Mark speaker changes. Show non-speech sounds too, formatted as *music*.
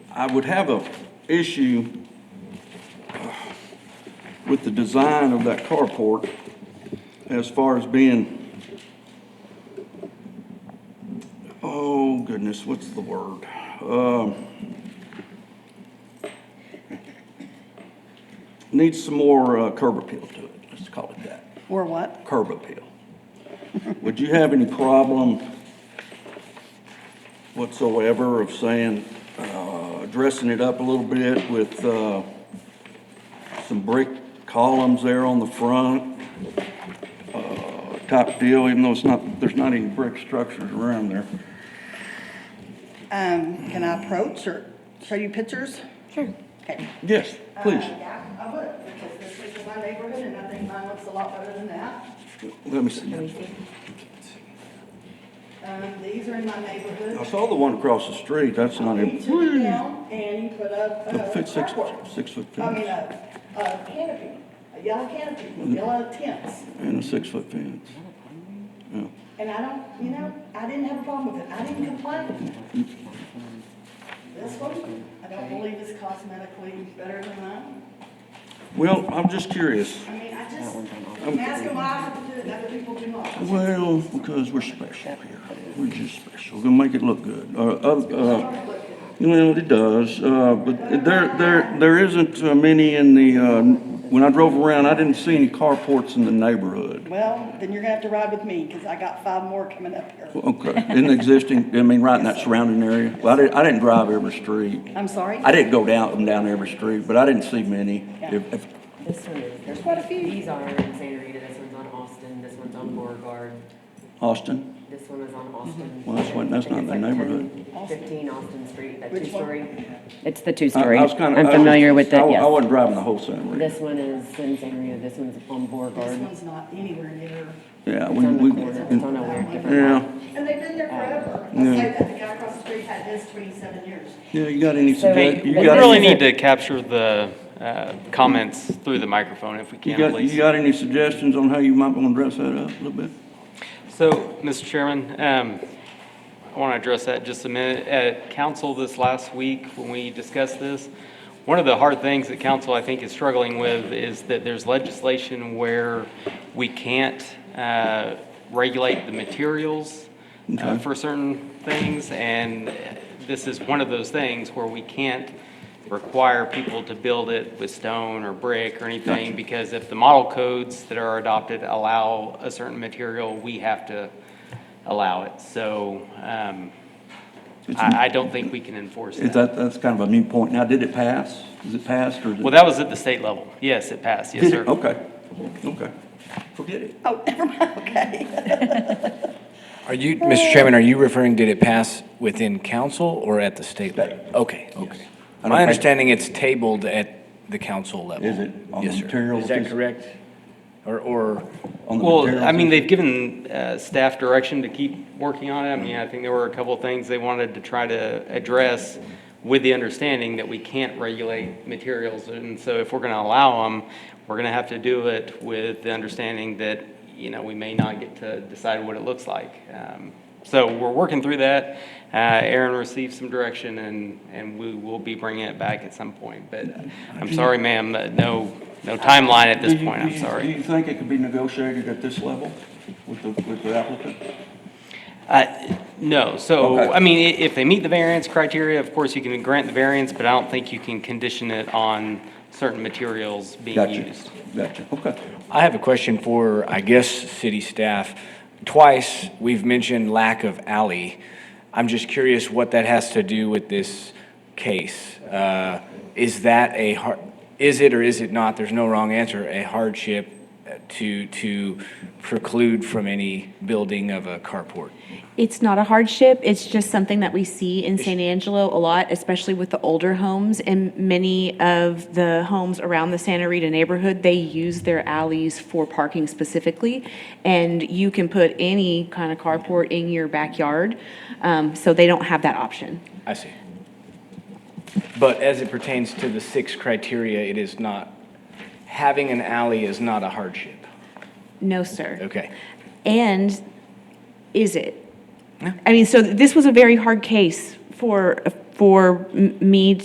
Speaker 1: I would have a issue with the design of that carport as far as being, oh goodness, what's the word? Um, Needs some more uh, curb appeal to it, let's call it that.
Speaker 2: Or what?
Speaker 1: curb appeal. Would you have any problem whatsoever of saying, uh, dressing it up a little bit with, uh, some brick columns there on the front, uh, type deal, even though it's not, there's not any brick structures around there?
Speaker 2: Um, can I approach or show you pictures? Sure. Okay.
Speaker 1: Yes, please,
Speaker 2: Uh, Yeah, I would, because this is my neighborhood and I think mine looks a lot better than that.
Speaker 1: let me see.
Speaker 2: Um, these are in my
Speaker 1: I
Speaker 2: neighborhood.
Speaker 1: saw the one across the street, that's not
Speaker 2: You
Speaker 1: him.
Speaker 2: took it down and you put up
Speaker 1: The
Speaker 2: a
Speaker 1: fit- six,
Speaker 2: carport.
Speaker 1: six foot
Speaker 2: I mean,
Speaker 1: fence Mm-hmm.
Speaker 2: a, a canopy, a yellow canopy, with yellow tents.
Speaker 1: and a six foot fence.
Speaker 2: And I don't, you know, I didn't have a problem with it. I didn't complain. This one, I don't believe is cosmetically better than mine.
Speaker 1: Well, I'm just curious.
Speaker 2: I mean, I just, I'm asking why I have to do it, and other people do not.
Speaker 1: Well, because we're special here. We're just special. We're gonna make it look good. Uh, uh, uh, well, it does, uh, but there, there, there isn't uh, many in the, uh, when I drove around, I didn't see any carports in the neighborhood.
Speaker 2: Well, then you're gonna have to ride with me, because I got five more coming up here.
Speaker 1: Okay, *laughs* in the existing, I mean, right in that surrounding area. Well, I didn't, I didn't drive every street.
Speaker 2: I'm sorry?
Speaker 1: I didn't go down, them down every street, but I didn't see many. If, if,
Speaker 3: This one is.
Speaker 2: There's quite a few.
Speaker 3: These are in Santa Rita, this one's on Austin, this one's on Beauregard,
Speaker 1: Austin?
Speaker 3: this one is
Speaker 2: Mhm.
Speaker 3: on Austin.
Speaker 1: Well, that's what- that's not in the
Speaker 3: I think it's like
Speaker 1: neighborhood.
Speaker 3: 10, Fifteen Austin Street, that
Speaker 2: Which one?
Speaker 3: two-story.
Speaker 4: It's the
Speaker 1: I- I
Speaker 4: two-story.
Speaker 1: was kinda-
Speaker 4: I'm
Speaker 1: I was-
Speaker 4: familiar with
Speaker 1: I
Speaker 4: that,
Speaker 1: wa- I
Speaker 4: yes.
Speaker 1: wasn't driving the whole Santa Rita.
Speaker 3: This one is in Santa Rita, this one's on
Speaker 2: This
Speaker 3: Beauregard.
Speaker 2: one's not anywhere near,
Speaker 1: Yeah,
Speaker 3: It's
Speaker 1: we,
Speaker 3: on the
Speaker 1: we,
Speaker 3: corner, it's on a weird different
Speaker 1: yeah.
Speaker 3: lot.
Speaker 2: and they've been there forever. I say that, the guy across the street had his twenty-seven years.
Speaker 1: Yeah, you got any,
Speaker 4: So-
Speaker 1: sugge-
Speaker 4: Hey,
Speaker 1: you
Speaker 4: we
Speaker 5: We
Speaker 1: got
Speaker 5: really
Speaker 1: any-
Speaker 5: need to capture the uh, comments through the microphone if we
Speaker 1: You
Speaker 5: can,
Speaker 1: got, you
Speaker 5: please.
Speaker 1: got any suggestions on how you might want to dress that up a little bit?
Speaker 5: So, Mr. Chairman, um, I want to address that just a minute. At council this last week, when we discussed this, one of the hard things that council, I think, is struggling with is that there's legislation where we can't uh, regulate the materials uh,
Speaker 1: Okay.
Speaker 5: for certain things, and this is one of those things where we can't require people to build it with stone or brick or anything, because if the model codes that are adopted allow a certain material, we have to allow it. So um, I, I don't think we can enforce
Speaker 1: Is
Speaker 5: that.
Speaker 1: that, that's kind of a moot point. Now, did it pass? Is it passed or? is it-
Speaker 5: Well, that was at the state level. Yes, it passed. Yes,
Speaker 1: Did
Speaker 5: sir.
Speaker 1: it? Okay, okay. Forget it.
Speaker 2: Oh, never mind, okay.
Speaker 6: Are you, Mr. Chairman, are you referring, did it pass within council or at the state level? Okay, okay.
Speaker 1: I don't
Speaker 6: My
Speaker 1: think-
Speaker 6: understanding, it's tabled at the council level.
Speaker 1: Is it on
Speaker 6: Yes,
Speaker 1: the
Speaker 6: sir.
Speaker 1: materials?
Speaker 6: Is that correct? Or, or,
Speaker 1: On the
Speaker 5: Well,
Speaker 1: materials
Speaker 5: I mean,
Speaker 1: issue?
Speaker 5: they've given uh, staff direction to keep working on it. I mean, I think there were a couple of things they wanted to try to address with the understanding that we can't regulate materials. And so if we're going to allow them, we're going to have to do it with the understanding that, you know, we may not get to decide what it looks like. Um, So we're working through that. Uh, Aaron received some direction and, and we will be bringing it back at some point. But uh, I'm sorry, ma'am, uh, no, no timeline at this
Speaker 1: Do you-
Speaker 5: point,
Speaker 1: do
Speaker 5: I'm
Speaker 1: you-
Speaker 5: sorry.
Speaker 1: Do you think it could be negotiated at this level with the, with the applicant?
Speaker 5: Uh, No, so,
Speaker 1: Okay.
Speaker 5: I mean, i- if they meet the variance criteria, of course, you can grant the variance, but I don't think you can condition it on certain materials being
Speaker 1: Gotcha,
Speaker 5: used.
Speaker 1: gotcha, okay.
Speaker 6: I have a question for, I guess, city staff. Twice, we've mentioned lack of alley. I'm just curious what that has to do with this case. Uh, Is that a, har- is it or is it not, there's no wrong answer, a hardship to, to preclude from any building of a carport?
Speaker 7: It's not a hardship, it's just something that we see in San Angelo a lot, especially with the older homes. And many of the homes around the Santa Rita neighborhood, they use their alleys for parking specifically. And you can put any kind of carport in your backyard, um, so they don't have that option.
Speaker 6: I see. But as it pertains to the six criteria, it is not, having an alley is not a hardship.
Speaker 7: No, sir.
Speaker 6: Okay.
Speaker 7: And is it? I mean, so this was a very hard case for, for m- me